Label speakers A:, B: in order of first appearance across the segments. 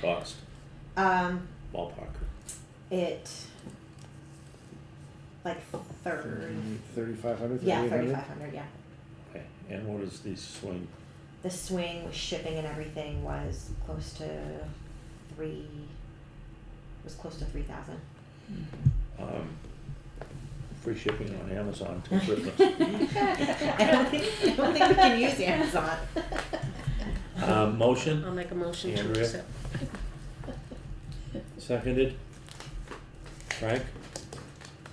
A: cost,
B: Um,
A: ballpark?
B: it like thirty.
C: Thirty-five hundred,
B: Yeah,
C: thirty-eight hundred?
B: thirty-five hundred. Yeah,
A: Okay, and what is the swing?
B: the swing with shipping and everything was close to three. Was close to three thousand.
A: Um, free shipping on Amazon till Christmas.
B: I don't think I don't think we can use Amazon.
A: Uh, motion?
D: I'll make a motion to
A: Andrea?
D: accept.
A: Seconded. Frank?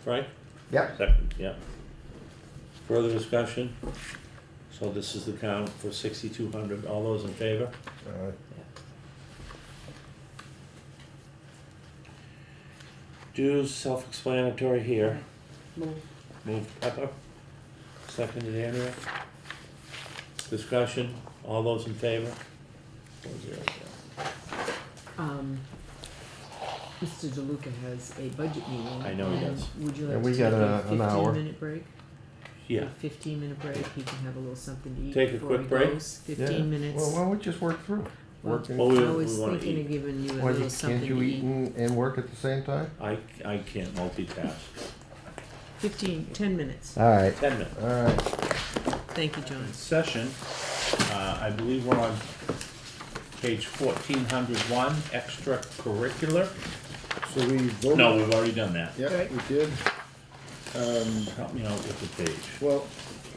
A: Frank?
C: Yep.
A: Second, yeah. Further discussion? So this is the count for sixty-two hundred. All those in favor?
C: Uh,
A: Dues, self-explanatory here.
D: Move.
A: Move Pepper. Seconded Andrea. Discussion? All those in favor? Four zero zero.
E: Um, Mr. DeLuca has a budget meeting.
A: I know he
E: and
A: does.
E: Would you
C: And
E: like
C: we
E: to take
C: got a-
E: a
C: an hour.
E: fifteen minute break?
A: Yeah.
E: Fifteen minute break, he can have a little something to eat
A: Take a
E: before
A: quick
E: he
A: break?
E: goes.
C: yeah.
E: Fifteen minutes.
C: Well, why don't we just work through? it?
E: Well,
C: Work in-
A: Well, we-
E: I was
A: wanna
E: thinking
A: eat.
E: of giving you a
C: Why,
E: little
C: you-
E: something
C: can't you
E: to
C: eat
E: eat.
C: and, and work at the same time?
A: I, I can't multitask.
E: Fifteen, ten minutes.
C: Alright,
A: Ten minutes.
C: alright.
E: Thank you, John.
A: Session, uh, I believe we're on page fourteen hundred one, extracurricular.
C: So we voted?
A: No, we've already done that.
C: Yep, we did. Um,
A: Help me out with the page.
C: well,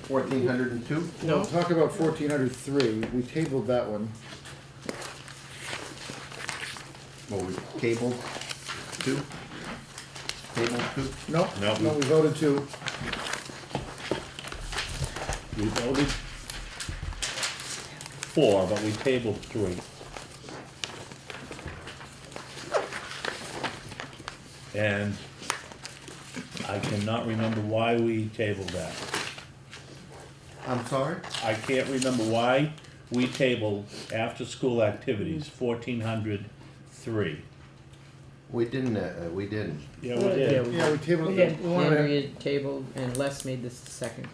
F: Fourteen hundred and two?
C: we'll talk about fourteen hundred three. We tabled that one.
F: Well, we tabled two? Tabled two?
C: No,
A: No.
C: no, we voted two.
A: We voted four, but we tabled three. And I cannot remember why we tabled that.
F: I'm sorry?
A: I can't remember why we tabled after-school activities, fourteen hundred three.
F: We didn't, uh, we didn't.
A: Yeah, we did.
C: Yeah, we tabled. it.
E: Andrea tabled and Les made this the second.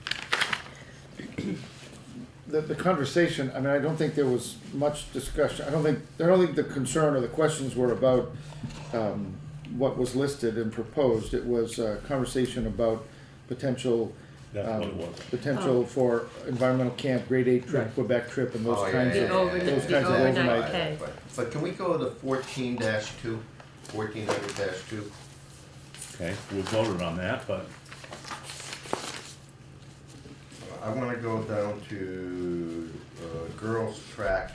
C: the, the conversation, I mean, I don't think there was much discussion, I don't think, I don't think the concern or the questions were about, um, what was listed and proposed, it was a conversation about potential,
A: That's what it
C: um,
A: was.
C: potential for environmental camp, grade eight trip, Quebec trip, and those
F: Oh, yeah,
C: kinds
F: yeah,
C: of,
F: yeah, yeah,
C: those
F: yeah,
C: kinds of
F: yeah,
C: overnight.
F: yeah, yeah, yeah, but- But can we go to fourteen dash two? Fourteen hundred dash two?
A: Okay, we voted on that, but
F: I wanna go down to, uh, girls' track.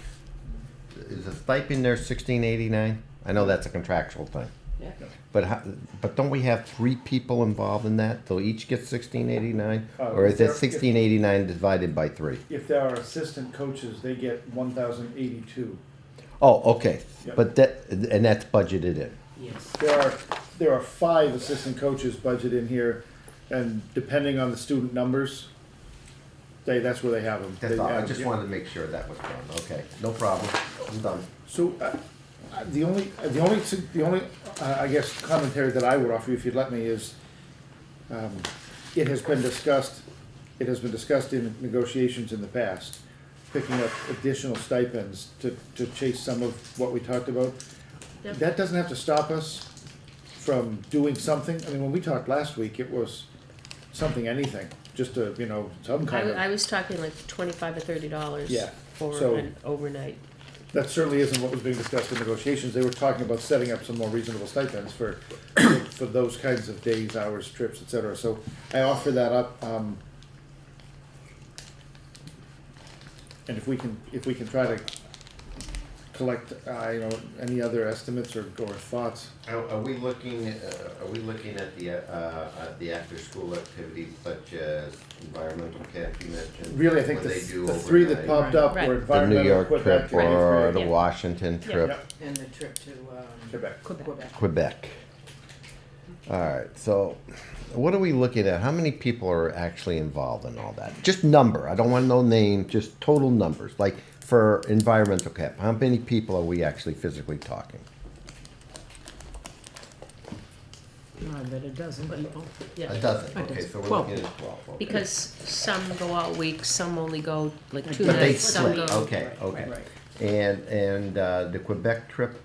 F: Is the stipend there sixteen eighty-nine? I know that's a contractual thing.
E: Yeah.
F: But how, but don't we have three people involved in that? They'll each get sixteen eighty-nine?
C: Uh,
F: Or is
C: there-
F: that sixteen eighty-nine divided by three?
C: If there are assistant coaches, they get one thousand eighty-two.
F: Oh, okay,
C: Yep.
F: but that, and that's budgeted in.
E: Yes.
C: There are, there are five assistant coaches budgeted in here, and depending on the student numbers, they, that's where they have them.
F: That's
C: They
F: all, I
C: have-
F: just
C: yeah.
F: wanted to make sure that was done, okay, no problem, I'm done.
C: So, uh, uh, the only, uh, the only, su- the only, uh, I guess, commentary that I would offer you, if you'd let me, is, um, it has been discussed, it has been discussed in negotiations in the past, picking up additional stipends to, to chase some of what we talked about.
D: Yep.
C: That doesn't have to stop us from doing something. I mean, when we talked last week, it was something, anything, just to, you know, some
D: I,
C: kind
D: w- I
C: of,
D: was talking like twenty-five or thirty dollars.
C: Yeah, so-
D: For an overnight.
C: that certainly isn't what was being discussed in negotiations. They were talking about setting up some more reasonable stipends for, for those kinds of days, hours, trips, et cetera. So I offer that up, um, and if we can, if we can try to collect, uh, you know, any other estimates or, or thoughts,
F: Are, are we looking, uh, are we looking at the, uh, at the after-school activities such as environmental camp you mentioned?
C: Really, I think
F: when
C: the,
F: they do
C: the three that
F: overnight?
C: popped up
D: Right.
C: were
F: The New
C: environmental,
F: York
C: Quebec,
F: trip or
C: Quebec,
F: the
D: Yeah.
F: Washington
D: Yeah.
F: trip,
E: And the trip to, um,
C: Quebec.
E: Quebec.
F: Quebec. Alright, so what are we looking at? How many people are actually involved in all that? Just number, I don't want no name, just total numbers, like for environmental camp, how many people are we actually physically talking?
E: Oh, I bet a dozen people.
F: A
D: Yeah,
F: dozen,
E: A
F: okay,
E: dozen.
F: so we're
E: Twelve.
F: looking at twelve, okay.
D: because some go all week, some only go like two
F: But they
D: nights, some
F: split,
D: go.
F: okay, okay. And, and uh, the Quebec trip,